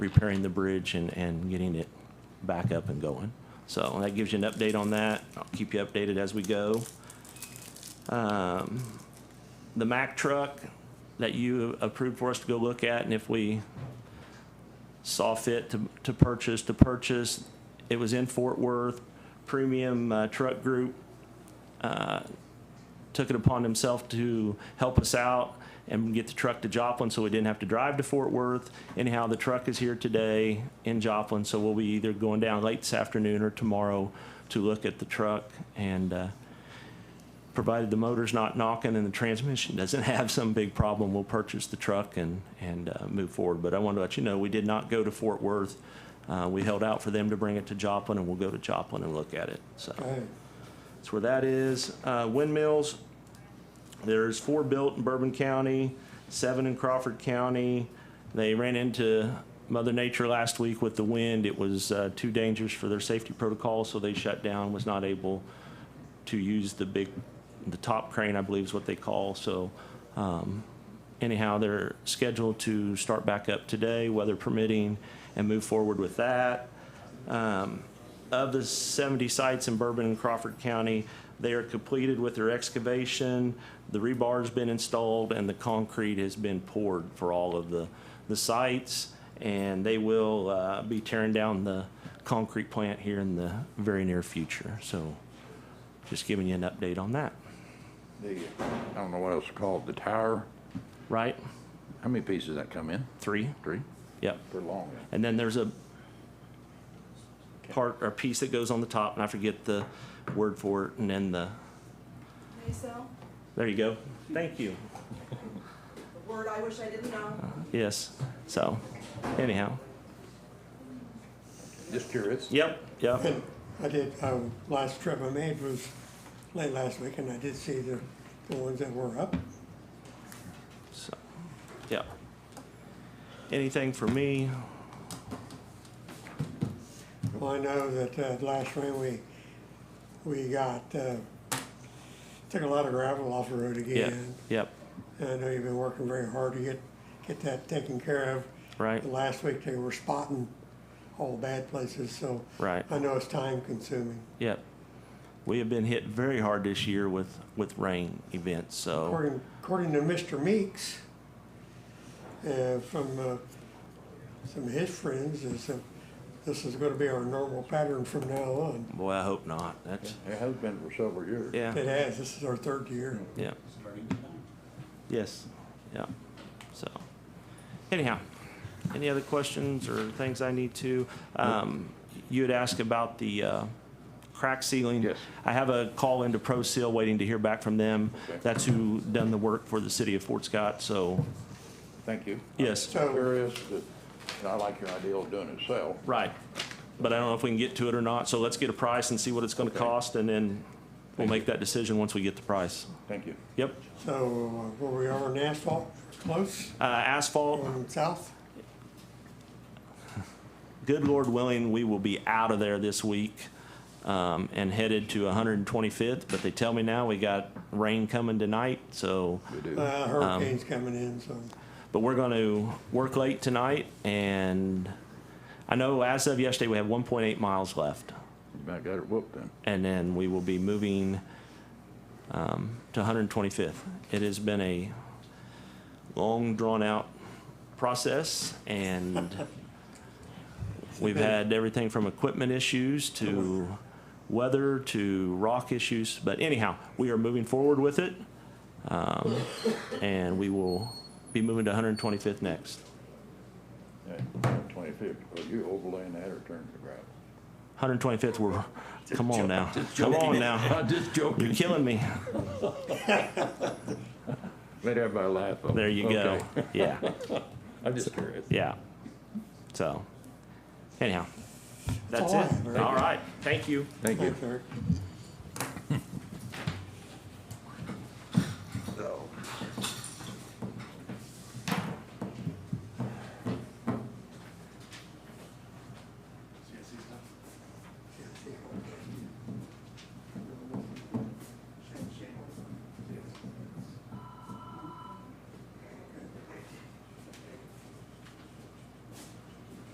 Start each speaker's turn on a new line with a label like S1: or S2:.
S1: repairing the bridge and, and getting it back up and going. So that gives you an update on that. I'll keep you updated as we go. Um, The Mack truck that you approved for us to go look at, and if we saw fit to, to purchase, to purchase, it was in Fort Worth. Premium uh, Truck Group took it upon himself to help us out and get the truck to Joplin so we didn't have to drive to Fort Worth. Anyhow, the truck is here today in Joplin, so we'll be either going down late this afternoon or tomorrow to look at the truck and, uh, provided the motor's not knocking and the transmission doesn't have some big problem, we'll purchase the truck and, and, uh, move forward. But I wanted to let you know, we did not go to Fort Worth. Uh, we held out for them to bring it to Joplin and we'll go to Joplin and look at it, so.
S2: Hey,
S1: That's where that is. Uh, windmills, there's four built in Bourbon County, seven in Crawford County. They ran into Mother Nature last week with the wind. It was uh, too dangerous for their safety protocol, so they shut down, was not able to use the big, the top crane, I believe is what they call. So um, anyhow, they're scheduled to start back up today, weather permitting, and move forward with that of the 70 sites in Bourbon and Crawford County, they are completed with their excavation, the rebar's been installed, and the concrete has been poured for all of the, the sites. And they will uh, be tearing down the concrete plant here in the very near future. So just giving you an update on that,
S2: the, I don't know what else to call it, the tower,
S1: right?
S2: how many pieces that come in?
S1: Three?
S2: Three?
S1: Yep.
S2: For long.
S1: And then there's a part, or piece that goes on the top, and I forget the word for it, and then the,
S3: Nacelle,
S1: there you go. Thank you.
S3: a word I wish I didn't know.
S1: Yes. So, anyhow.
S2: Just curious.
S1: Yep. Yep.
S4: And I did, uh, last trip I made was late last week, and I did see the, the ones that were up.
S1: So, yep. Anything for me?
S4: Well, I know that, uh, the last rain we, we got, uh, took a lot of gravel off the road
S1: Yep.
S4: again.
S1: Yep.
S4: And I know you've been working very hard to get, get that taken care of.
S1: Right.
S4: And Last week they were spotting all the bad places, so.
S1: Right.
S4: I know it's time consuming.
S1: Yep. We have been hit very hard this year with with rain events. So
S4: According, according to Mr. Meeks, uh, from, uh, some of his friends, is that this is gonna be our normal pattern from now on.
S1: boy, I hope not. That's
S2: It has been for several years.
S1: yeah.
S4: It has, this is our third year.
S1: Yeah. Yes. Yeah. So anyhow, any other questions or things I need to? Um, you had asked about the uh, crack ceiling.
S2: Yes.
S1: I have a call into Pro Seal waiting to hear back from them.
S2: Okay.
S1: That's who done the work for the city of Fort Scott. So
S2: Thank you.
S1: yes,
S4: So-
S2: Curious, but, and I like your idea of doing it yourself.
S1: right. But I don't know if we can get to it or not. So let's get a price and see what it's going to
S2: Okay.
S1: cost, and then we'll
S2: Thank
S1: make that decision once we get the price.
S2: Thank you.
S1: Yep.
S4: So, uh, where we are in asphalt, close,
S1: Uh, asphalt.
S4: going south,
S1: good Lord willing, we will be out of there this week um, and headed to 125th. But they tell me now we got rain coming tonight, so,
S2: We do.
S4: uh,
S1: Um,
S4: hurricane's coming in, so.
S1: but we're going to work late tonight. And I know as of yesterday, we have 1.8 miles left.
S2: You might got it whooped then.
S1: And then we will be moving um, to 125th. It has been a long, drawn-out process, and We've had everything from equipment issues to weather to rock issues, but anyhow, we are moving forward with it. um, And we will be moving to 125th next.
S2: Yeah, twenty-fifth. Are you overlaying that or turning to gravel?
S1: 125th, we're, come on now, come on now.
S5: I'm just
S1: You're
S5: joking.
S1: killing me.
S2: Made everybody laugh. though.
S1: There you go.
S2: Okay.
S1: Yeah,
S5: I'm just curious.
S1: yeah. So anyhow, that's
S4: all I
S1: it.
S4: have, Eric.
S1: All right, thank you.
S2: Thank you.
S4: Thanks, Eric.